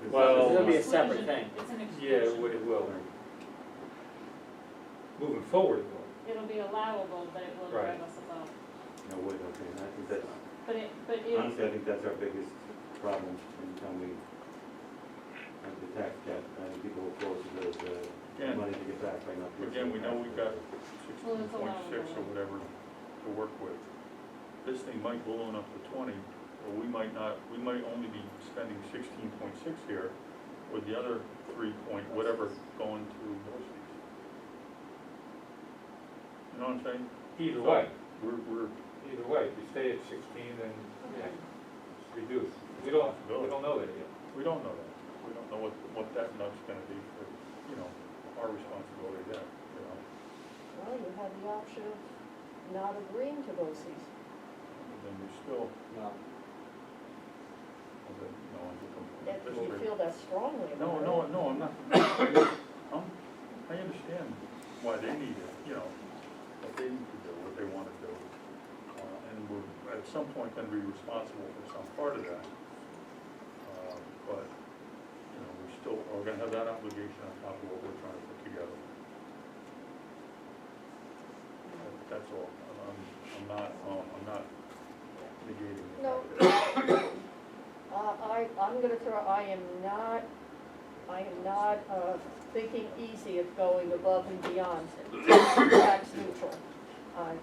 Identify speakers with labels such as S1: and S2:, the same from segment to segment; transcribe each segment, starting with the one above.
S1: 'cause
S2: Well-
S3: It'll be a
S4: uh,
S1: that's-
S3: separate thing.
S5: It's an exclusion.
S2: Yeah, it wi- it will. Moving forward, it will.
S5: It'll be allowable, but it will drive
S2: Right.
S5: us above.
S1: No, wait, okay, and I think that's,
S5: But it, but it,
S1: honestly, I think that's our biggest problem in town we have the tax cap, and people will force the, the
S4: Again.
S1: money to get back by not. paying
S4: Again, we know
S1: taxes.
S4: we've got
S5: Well,
S4: sixteen
S5: it's
S4: point
S5: allowable.
S4: six or whatever to work with. This thing might balloon up to twenty, or we might not, we might only be spending sixteen point six here, with the other three point, whatever, going to Dorsey's. You know what I'm saying?
S2: Either way,
S4: We're, we're,
S2: either way, if you stay at sixteen, then yeah, it's reduced. We don't, we don't know that yet.
S4: we don't know that. We don't know what, what that nut's gonna be for, you know, our responsibility there, you know?
S6: Well, you have the option of not agreeing to those fees.
S4: Then we still,
S3: Well,
S4: you know, under the
S6: If you
S4: district.
S6: feel that strongly about
S4: No,
S6: it.
S4: no, no, I'm not, I'm, I understand why they need it, you know, what they need to do, what they wanna do. Uh, And we're, at some point, gonna be responsible for some part of that. Uh, But, you know, we still, are gonna have that obligation on top of what we're trying to put together. That- That's all, I'm, I'm not, um, I'm not negating it.
S6: No. Uh, I, I'm gonna throw, I am not, I am not, uh, thinking easy of going above and beyond tax neutral. I-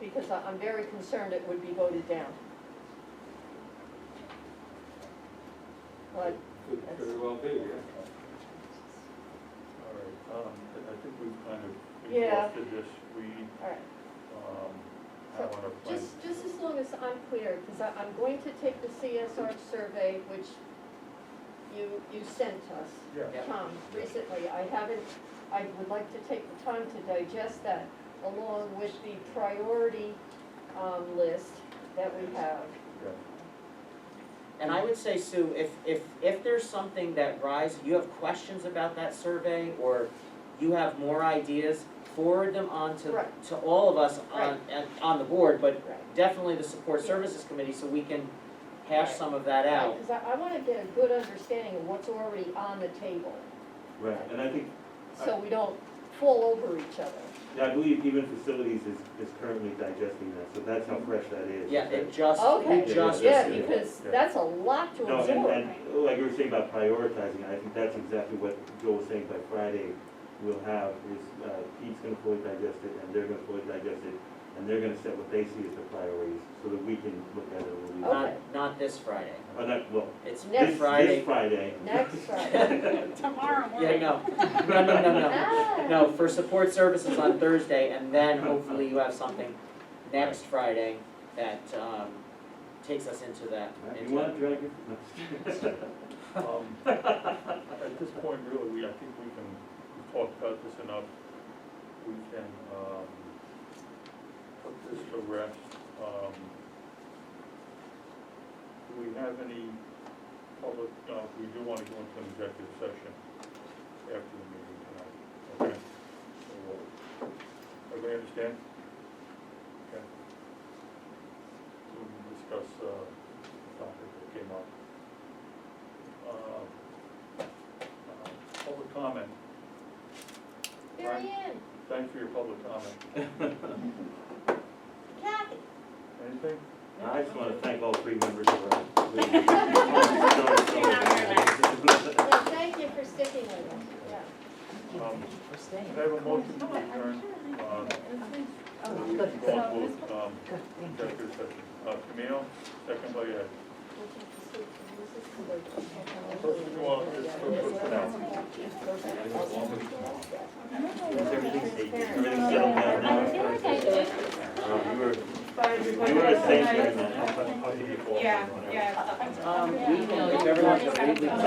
S6: Because I- I'm very concerned it would be voted down. But
S2: Could very well be, yeah.
S4: All right, um, I- I think we've kind of
S6: Yeah.
S4: exhausted this, we,
S6: All right,
S4: um, I
S6: So,
S4: want to plan.
S6: just, just as long as I'm clear, because I, I'm going to take the CSR survey, which you, you sent us,
S4: Yeah,
S6: Tom, recently. I haven't, I would like to take the time to digest that, along with the priority, um, list that we have.
S4: yeah.
S3: And I would say, Sue, if, if, if there's something that rise, you have questions about that survey, or you have more ideas, forward them on to,
S6: Right.
S3: to all of us on,
S6: Right.
S3: and- on the board, but
S6: Right.
S3: definitely the support
S6: Yeah.
S3: services committee, so we can hash
S6: Right.
S3: some of that out.
S6: Because I, I want to get a good understanding of what's already on the table,
S1: Right, and I think
S6: so we don't fall over each other.
S1: Yeah, I believe even facilities is, is currently digesting that, so that's how fresh that is.
S3: Mm-hmm. Yeah, it just,
S6: Okay.
S3: it just.
S6: Yeah,
S1: yeah,
S6: because
S4: yeah.
S6: that's a lot to
S1: No, and,
S6: absorb.
S1: and like you were saying about prioritizing, I think that's exactly what Joel was saying, by Friday, we'll have, is, uh, Pete's gonna fully digest it, and they're gonna fully digest it, and they're gonna set what they see as the priorities, so that we can look at it a little bit.
S6: Okay.
S3: Not, not this Friday,
S1: Or not, well,
S3: it's
S6: Next
S1: this,
S3: this
S1: this
S3: Friday.
S1: Friday.
S6: Next Friday.
S5: tomorrow
S3: Yeah,
S5: morning.
S3: no, no, no, no, no.
S6: Ah.
S3: No, for support services on Thursday, and then hopefully you have something next Friday that, um, takes us into that.
S1: Uh, You
S3: into-
S1: want to drag it?
S4: Um, At this point, really, we, I think we can, we've talked about this enough. We can, um, put this to rest. Um, Do we have any public, uh, we do want to go into an executive session after the meeting tonight, okay? So, we'll- Everybody understand? Okay. So we can discuss, uh, the topic that came up uh, uh, public comment.
S6: Mary
S4: Right.
S6: Ann,
S4: Thanks for your public comment.
S6: Kathy.
S4: Anything?
S1: I just wanna thank all three members of our. committee.
S6: No, thank you for sticking with us, yeah.
S4: Um, Can I have a motion to adjourn? Uh, we can go on both, um, executive session. Uh, Camille, second by uh, Ed. First of all, just for- for- for now.
S1: Everything's, everything's settled down
S5: I feel
S1: now.
S5: like I did.
S1: Oh, You were, you were a saint during that.
S7: Yeah, yeah.
S3: Um, we, if everyone, we, we